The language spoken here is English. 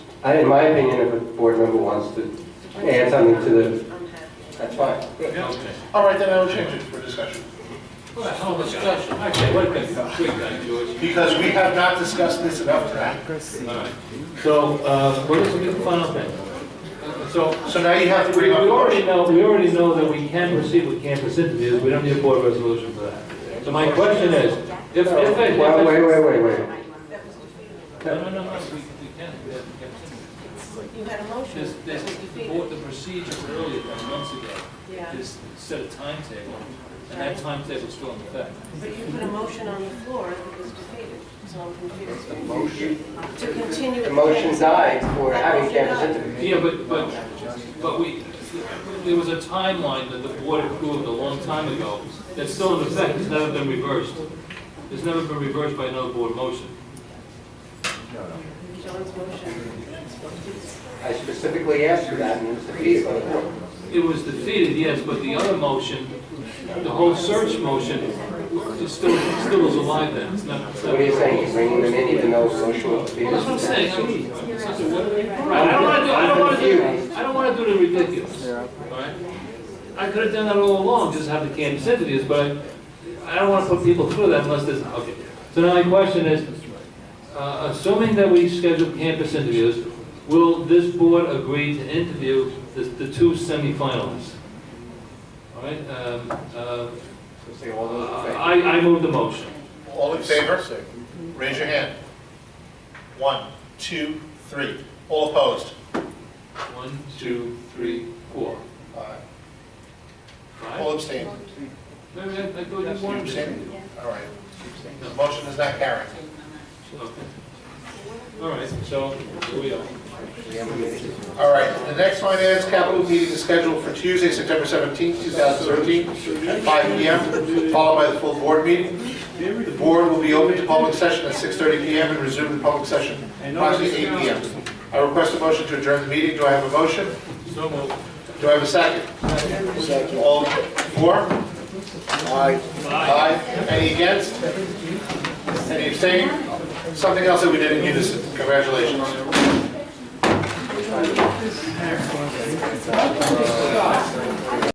I, in my opinion, if a board member wants to add something to the, I'm happy. that's fine. Yeah. All right, then I will change it for discussion. Well, whole discussion, okay, wait a minute, quick, then, George. Because we have not discussed this enough tonight. All right. So, uh, what is the new final thing? So, So now you have to we we bring up. already know, we already know that we can proceed with campus interviews, we don't need a board resolution for that. So my question is, if, if, No, if. Wait, if- wait, wait, wait, wait. No, no, no, no, we, we can, we have campus interviews. You had a motion. There's, there's, that was the defeated. board, the procedure earlier, than months ago, Yeah, is set a timetable, and that timetable's still in effect. but you put a motion on the floor that was defeated, so I'm confused. The motion? To continue. The motion died for having campus Yeah, interviews. but, but, but we, there was a timeline that the board approved a long time ago that's still in effect, it's never been reversed. It's never been reversed by another board motion. John's motion. I specifically asked for that, and it was defeated by the board. It was defeated, yes, but the other motion, the whole search motion, is still, still is alive then, it's not. it's So not- what are you saying, you're bringing them in even though the motion was Well, defeated? that's what I'm saying, I mean, it's just a what- right, I don't wanna do, I don't wanna do, I don't wanna do the ridiculous, alright? I could've done that all along, just have the campus interviews, but I, I don't wanna put people through that unless there's, okay. So now my question is, uh, assuming that we schedule campus interviews, will this board agree to interview the, the two semifinalists? Alright, um, uh, Say all those in favor. I, I move the motion. All in favor? Raise your hand. One, two, three. All opposed? One, two, three, four. Aye. Five? All abstained? Wait, wait, I thought you You wanted to. abstained? All right. The motion is not carried. Okay. All right, so here we are. All right, the next one is capital meeting is scheduled for Tuesday, September 17th, 2013, at 5 PM, followed by the full board meeting. The board will be open to public session at 6:30 PM and resume the public session approximately 8 PM. I request a motion to adjourn the meeting. Do I have a motion? So moved. Do I have a second? All four? Aye. Aye. Any against? Any abstaining? Something else that we did in unison. Congratulations.